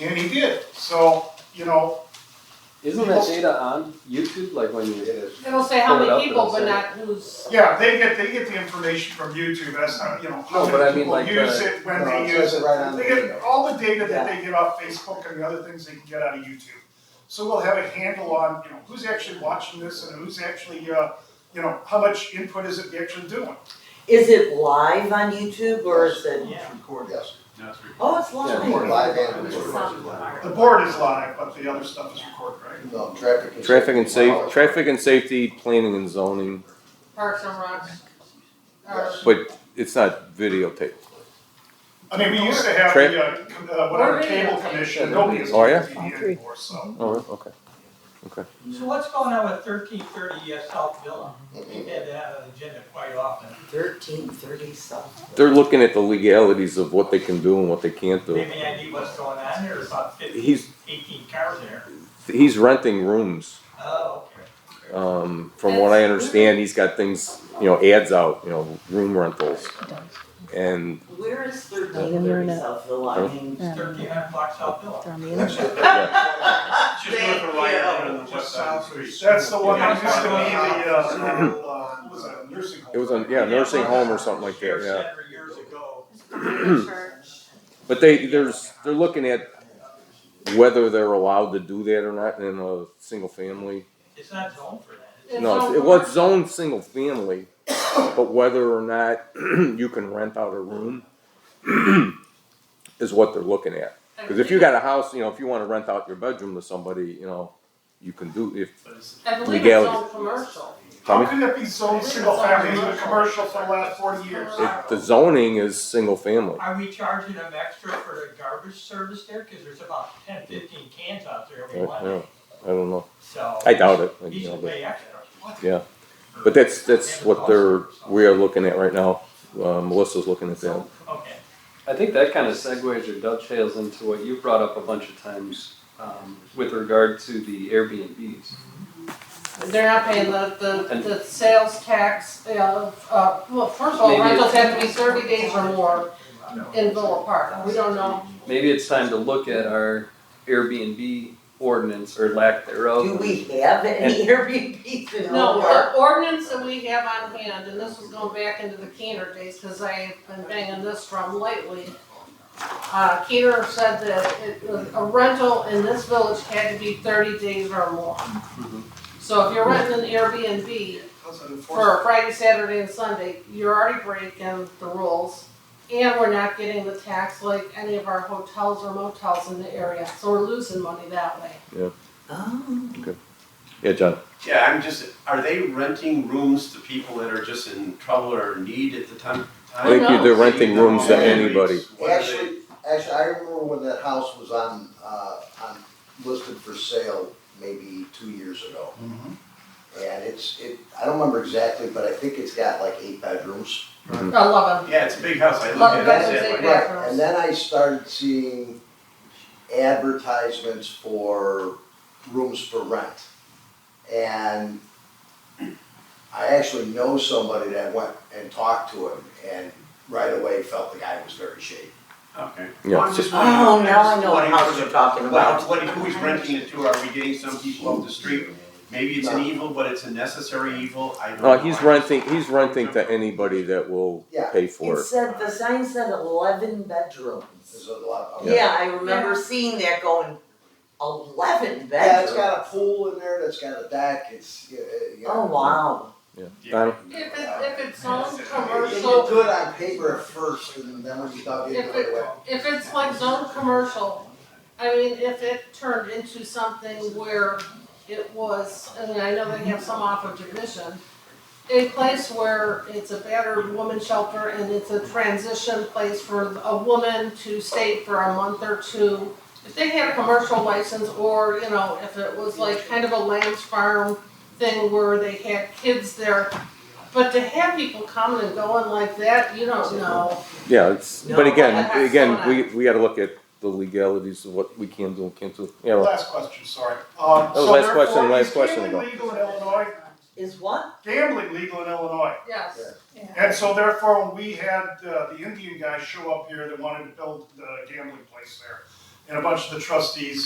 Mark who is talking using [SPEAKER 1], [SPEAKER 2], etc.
[SPEAKER 1] And he did, so, you know,
[SPEAKER 2] Isn't that data on YouTube, like when
[SPEAKER 3] It
[SPEAKER 2] you?
[SPEAKER 3] is.
[SPEAKER 4] It'll say how
[SPEAKER 2] Pull it up
[SPEAKER 4] many people,
[SPEAKER 2] and
[SPEAKER 4] but
[SPEAKER 2] say-
[SPEAKER 4] not who's.
[SPEAKER 1] yeah, they get, they get the information from YouTube, that's not, you know, how
[SPEAKER 2] No, but I
[SPEAKER 1] many
[SPEAKER 2] mean,
[SPEAKER 1] people
[SPEAKER 2] like,
[SPEAKER 1] use
[SPEAKER 2] the-
[SPEAKER 1] it, when
[SPEAKER 3] No,
[SPEAKER 1] they
[SPEAKER 3] it
[SPEAKER 1] use
[SPEAKER 3] says
[SPEAKER 1] it.
[SPEAKER 3] it right on the
[SPEAKER 1] They get
[SPEAKER 3] video.
[SPEAKER 1] all the data that they get off Facebook and the other things they can get out of YouTube. So we'll have a handle on, you know, who's actually watching this and who's actually, uh, you know, how much input is it actually doing?
[SPEAKER 5] Is it live on YouTube or is it,
[SPEAKER 3] Yes,
[SPEAKER 5] oh, it's
[SPEAKER 3] we're
[SPEAKER 5] live?
[SPEAKER 3] live and recorded.
[SPEAKER 1] The board is live, but the other stuff is recorded, right?
[SPEAKER 3] No, Um, traffic. is-
[SPEAKER 6] Traffic and
[SPEAKER 3] Wow.
[SPEAKER 6] safe, traffic and safety, planning and zoning,
[SPEAKER 4] Parks and Recs. or-
[SPEAKER 3] Yes.
[SPEAKER 6] but it's not videotaped.
[SPEAKER 1] I mean, we used to have
[SPEAKER 6] Trip.
[SPEAKER 1] the, uh, com- uh, whatever cable commission, nobody is
[SPEAKER 6] Oh,
[SPEAKER 1] on
[SPEAKER 6] yeah?
[SPEAKER 1] TV anymore, so.
[SPEAKER 6] Oh, okay.
[SPEAKER 7] So what's going on with thirteen thirty E South Villa? We've had that on the agenda quite often.
[SPEAKER 5] Thirteen thirty something.
[SPEAKER 6] They're looking at the legalities of what they can do and what they can't do.
[SPEAKER 7] Maybe I knew what's going on there, there's about 15,
[SPEAKER 6] He's
[SPEAKER 7] 18 cars there.
[SPEAKER 6] he's renting rooms.
[SPEAKER 7] Oh, okay.
[SPEAKER 6] Um, from what I understand, he's got things, you know, ads out, you know, room rentals. And
[SPEAKER 5] Where is
[SPEAKER 8] They
[SPEAKER 5] thirteen
[SPEAKER 8] didn't learn
[SPEAKER 5] thirty
[SPEAKER 8] it.
[SPEAKER 5] South Villa? I mean.
[SPEAKER 8] Yeah.
[SPEAKER 7] Thirteen hundred block South Villa.
[SPEAKER 8] They're on the
[SPEAKER 3] That's
[SPEAKER 8] internet.
[SPEAKER 3] it.
[SPEAKER 9] It's just north of Lion on the west side of the street.
[SPEAKER 1] That's the one that
[SPEAKER 7] Yeah.
[SPEAKER 1] used to be the, uh, uh, what was that, nursing home?
[SPEAKER 6] it was on, yeah, nursing home or something like that,
[SPEAKER 7] Sheriff's
[SPEAKER 6] yeah.
[SPEAKER 7] Center years ago.
[SPEAKER 4] Church.
[SPEAKER 6] But they, there's, they're looking at whether they're allowed to do that or not in a single family
[SPEAKER 7] It's not zoned for that. is it?
[SPEAKER 4] It's
[SPEAKER 6] No,
[SPEAKER 4] zoned
[SPEAKER 6] it
[SPEAKER 4] for-
[SPEAKER 6] was zoned single family, but whether or not you can rent out a room is what they're looking at. Cause if you got a house, you know, if you wanna rent out your bedroom to somebody, you know, you can do, if,
[SPEAKER 4] I believe it's
[SPEAKER 6] legality.
[SPEAKER 4] all commercial.
[SPEAKER 1] How
[SPEAKER 6] Tommy?
[SPEAKER 1] could it be so single family, it's been commercial for the last forty years?
[SPEAKER 6] It, the zoning is single family.
[SPEAKER 7] Are we charging them extra for the garbage service there? Cause there's about 10, 15 cans out there
[SPEAKER 6] I
[SPEAKER 7] every
[SPEAKER 6] I
[SPEAKER 7] Monday,
[SPEAKER 6] don't I don't know,
[SPEAKER 7] so.
[SPEAKER 6] I doubt it,
[SPEAKER 7] You
[SPEAKER 6] you know,
[SPEAKER 7] should
[SPEAKER 6] but,
[SPEAKER 7] pay extra.
[SPEAKER 6] yeah. But that's, that's what they're, we are looking at right now, uh, Melissa's looking at that.
[SPEAKER 7] Okay.
[SPEAKER 2] I think that kind of segues or dovetails into what you brought up a bunch of times um, with regard to the Airbnbs.
[SPEAKER 4] They're not paying the, the, the sales tax, uh, uh, well, first of all,
[SPEAKER 2] Maybe
[SPEAKER 4] rentals
[SPEAKER 2] it's-
[SPEAKER 4] have to be thirty days or more in Villa Park. We don't know.
[SPEAKER 2] Maybe it's time to look at our Airbnb ordinance or lack thereof.
[SPEAKER 5] Do we have any Airbnbs in
[SPEAKER 4] No,
[SPEAKER 5] Old Park?
[SPEAKER 4] the ordinance that we have on hand, and this was going back into the Keener days, cause I have been banging this drum lately. Uh, Keener said that it was, a rental in this village had to be thirty days or more.
[SPEAKER 2] Mm-hmm.
[SPEAKER 4] So if you're renting an Airbnb,
[SPEAKER 1] How's that enforced?
[SPEAKER 4] for Friday, Saturday, and Sunday, you're already breaking the rules. And we're not getting the tax like any of our hotels or motels in the area, so we're losing money that way.
[SPEAKER 5] Oh.
[SPEAKER 6] Yeah, John,
[SPEAKER 9] Yeah, I'm just, are they renting rooms to people that are just in trouble or need at the time?
[SPEAKER 6] I think
[SPEAKER 4] you-
[SPEAKER 6] they're renting rooms to anybody.
[SPEAKER 9] What are they-
[SPEAKER 3] Actually, actually, I remember when that house was on, uh, on, listed for sale maybe two years ago.
[SPEAKER 9] Mm-hmm.
[SPEAKER 1] Mhm.
[SPEAKER 3] And it's, it, I don't remember exactly, but I think it's got like eight bedrooms.
[SPEAKER 4] I love
[SPEAKER 9] Yeah, it's a big house, I look
[SPEAKER 4] Well,
[SPEAKER 9] at it.
[SPEAKER 4] that's
[SPEAKER 9] it's
[SPEAKER 4] what
[SPEAKER 9] like-
[SPEAKER 4] they- Right.
[SPEAKER 3] And then I started seeing advertisements for rooms for rent. And I actually know somebody that went and talked to him and right away felt the guy was very shady.
[SPEAKER 9] Okay.
[SPEAKER 6] Yeah,
[SPEAKER 9] Well, I'm
[SPEAKER 6] it's
[SPEAKER 9] just
[SPEAKER 5] Oh,
[SPEAKER 9] wondering- I'm
[SPEAKER 5] now I
[SPEAKER 9] just
[SPEAKER 5] know what
[SPEAKER 9] wondering
[SPEAKER 5] house
[SPEAKER 9] who
[SPEAKER 5] you're
[SPEAKER 9] the-
[SPEAKER 5] talking
[SPEAKER 9] what-
[SPEAKER 5] about.
[SPEAKER 9] What, who is renting it to, are we getting some people off the street? Maybe it's an evil, but it's a necessary evil, I don't know.
[SPEAKER 6] No, Uh, he's renting, he's renting to anybody that will
[SPEAKER 3] Yeah.
[SPEAKER 6] pay for
[SPEAKER 5] It
[SPEAKER 6] it.
[SPEAKER 5] said, the sign said eleven
[SPEAKER 3] There's
[SPEAKER 5] bedrooms.
[SPEAKER 3] a lot of.
[SPEAKER 5] Yeah, I remember seeing that going, eleven
[SPEAKER 3] Yeah, it's
[SPEAKER 5] bedrooms?
[SPEAKER 3] got a pool in there, that's got a deck, it's, uh, you know.
[SPEAKER 5] Oh, wow.
[SPEAKER 6] Yeah.
[SPEAKER 9] Yeah.
[SPEAKER 4] them. If it, if it's zone
[SPEAKER 3] It looked
[SPEAKER 4] commercial,
[SPEAKER 3] good on paper at first, and then when you dug into
[SPEAKER 4] if
[SPEAKER 3] it,
[SPEAKER 4] it,
[SPEAKER 3] went,
[SPEAKER 4] if it's like zone commercial, I mean, if it turned into something where it was, I mean, I know they have some off of admission, a place where it's a battered woman shelter and it's a transition place for a woman to stay for a month or two. If they had a commercial license or, you know, if it was like kind of a Lamb's Farm thing where they had kids there. But to have people coming and going like that, you don't know.
[SPEAKER 6] Yeah, it's, but
[SPEAKER 5] No,
[SPEAKER 6] again,
[SPEAKER 4] that's
[SPEAKER 6] again,
[SPEAKER 4] not-
[SPEAKER 6] we, we gotta look at the legalities of what we can do and can't do. Yeah, right.
[SPEAKER 1] Last question, sorry. Um,
[SPEAKER 6] That was
[SPEAKER 1] so
[SPEAKER 6] last question,
[SPEAKER 1] therefore,
[SPEAKER 6] last
[SPEAKER 1] is
[SPEAKER 6] question
[SPEAKER 1] Gambling
[SPEAKER 6] ago.
[SPEAKER 1] legal in Illinois,
[SPEAKER 5] Is what?
[SPEAKER 1] gambling legal in Illinois.
[SPEAKER 4] Yes.
[SPEAKER 1] And so therefore, when we had, uh, the Indian guy show up here that wanted to build the gambling place there, and a bunch of the trustees